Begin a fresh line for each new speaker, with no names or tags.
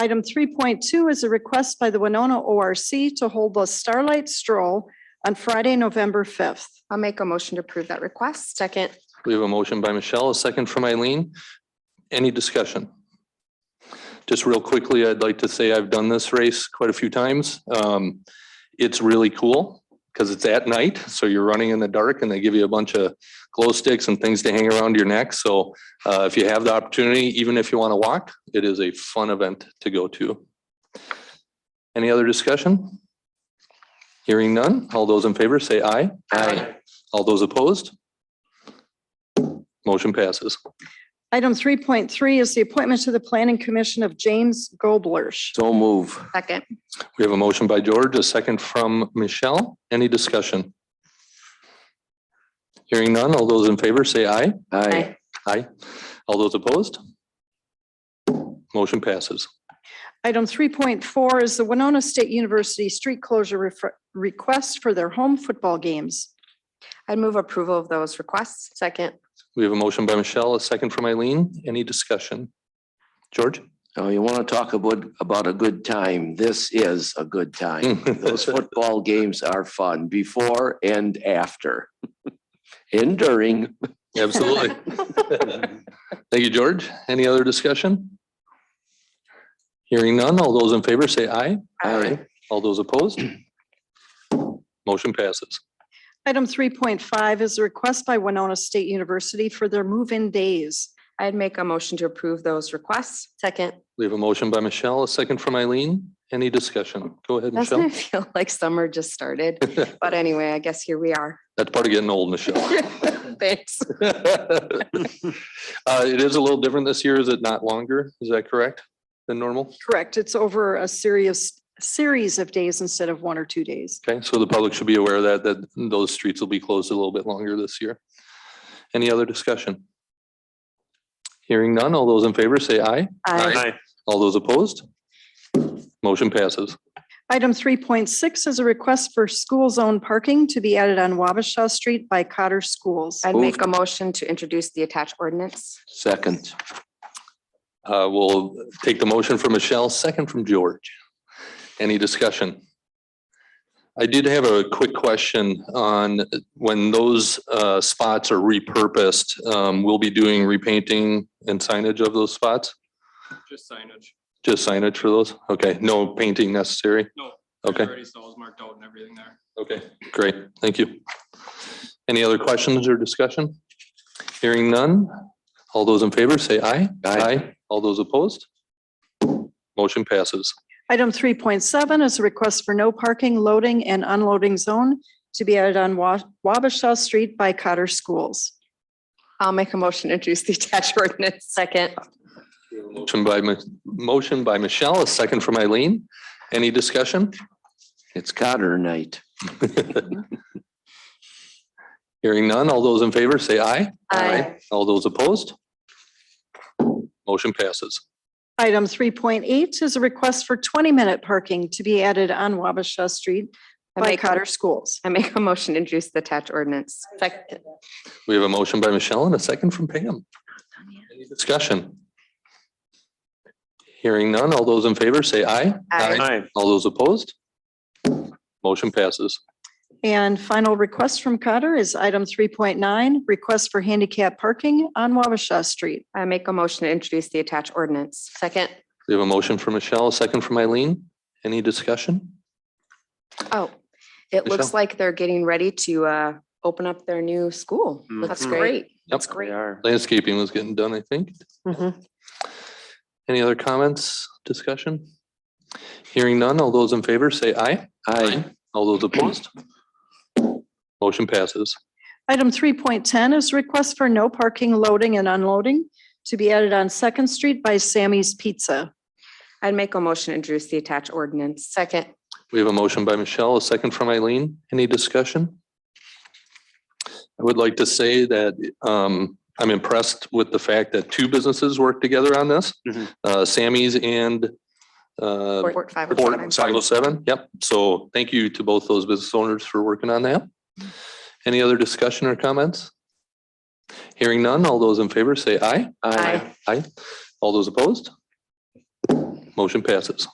Item three point two is a request by the Winona ORC to hold the Starlight Stroll on Friday, November fifth.
I'll make a motion to approve that request. Second.
We have a motion by Michelle, a second from Eileen. Any discussion? Just real quickly, I'd like to say I've done this race quite a few times. Um, It's really cool because it's at night, so you're running in the dark and they give you a bunch of glow sticks and things to hang around your neck. So uh, if you have the opportunity, even if you want to walk, it is a fun event to go to. Any other discussion? Hearing none. All those in favor say aye. Aye. All those opposed? Motion passes.
Item three point three is the appointment to the Planning Commission of James Goblerch.
So move.
Second.
We have a motion by George, a second from Michelle. Any discussion? Hearing none. All those in favor say aye.
Aye.
Aye. All those opposed? Motion passes.
Item three point four is the Winona State University Street Closure Refre- Request for their home football games.
I'd move approval of those requests. Second.
We have a motion by Michelle, a second from Eileen. Any discussion? George?
Oh, you want to talk about, about a good time? This is a good time.
Hmm.
Those football games are fun before and after. And during.
Absolutely. Thank you, George. Any other discussion? Hearing none. All those in favor say aye.
Aye.
All those opposed? Motion passes.
Item three point five is a request by Winona State University for their move-in days.
I'd make a motion to approve those requests. Second.
We have a motion by Michelle, a second from Eileen. Any discussion? Go ahead,
Doesn't
Michelle.
it feel like summer just started? But anyway, I guess here we are.
That's part of getting old, Michelle.
Thanks.
Uh, It is a little different this year. Is it not longer? Is that correct than normal?
Correct, it's over a serious series of days instead of one or two days.
Okay, so the public should be aware of that, that those streets will be closed a little bit longer this year. Any other discussion? Hearing none. All those in favor say aye.
Aye.
All those opposed? Motion passes.
Item three point six is a request for school zone parking to be added on Wabasha Street by Cotter Schools.
I'd
Moved.
make a motion to introduce the attached ordinance.
Second.
Uh, We'll take the motion from Michelle, second from George. Any discussion? I did have a quick question on when those uh, spots are repurposed, um, we'll be doing repainting and signage of those spots?
Just signage.
Just signage for those? Okay, no painting necessary?
No.
Okay,
Already stalls marked out and everything there.
okay, great, thank you. Any other questions or discussion? Hearing none, all those in favor say aye.
Aye.
All those opposed? Motion passes.
Item three point seven is a request for no parking, loading, and unloading zone to be added on Wa- Wabasha Street by Cotter Schools.
I'll make a motion to introduce the attached ordinance. Second.
Motion by, Mi- motion by Michelle, a second from Eileen. Any discussion?
It's Cotter night.
Hearing none. All those in favor say aye.
Aye.
All those opposed? Motion passes.
Item three point eight is a request for twenty-minute parking to be added on Wabasha Street
I
by
make-
Cotter Schools.
I make a motion to introduce the attached ordinance. Second.
We have a motion by Michelle and a second from Pam. Any discussion? Hearing none. All those in favor say aye.
Aye.
All those opposed? Motion passes.
And final request from Cotter is item three point nine, request for handicap parking on Wabasha Street.
I make a motion to introduce the attached ordinance. Second.
We have a motion from Michelle, a second from Eileen. Any discussion?
Oh, it looks
Michelle?
like they're getting ready to uh, open up their new school. That's
Mhm.
great.
That's
We are.
Landscaping was getting done, I think.
Mhm.
Any other comments, discussion? Hearing none, all those in favor say aye.
Aye.
All those opposed? Motion passes.
Item three point ten is request for no parking, loading and unloading to be added on Second Street by Sammy's Pizza.
I'd make a motion to introduce the attached ordinance. Second.
We have a motion by Michelle, a second from Eileen. Any discussion? I would like to say that um, I'm impressed with the fact that two businesses worked together on this.
Mhm.
Uh, Sammy's and uh,
Fort five oh seven.
Report five oh seven, yep. So thank you to both those business owners for working on that. Any other discussion or comments? Hearing none, all those in favor say aye.
Aye.
Aye. All those opposed? Motion passes.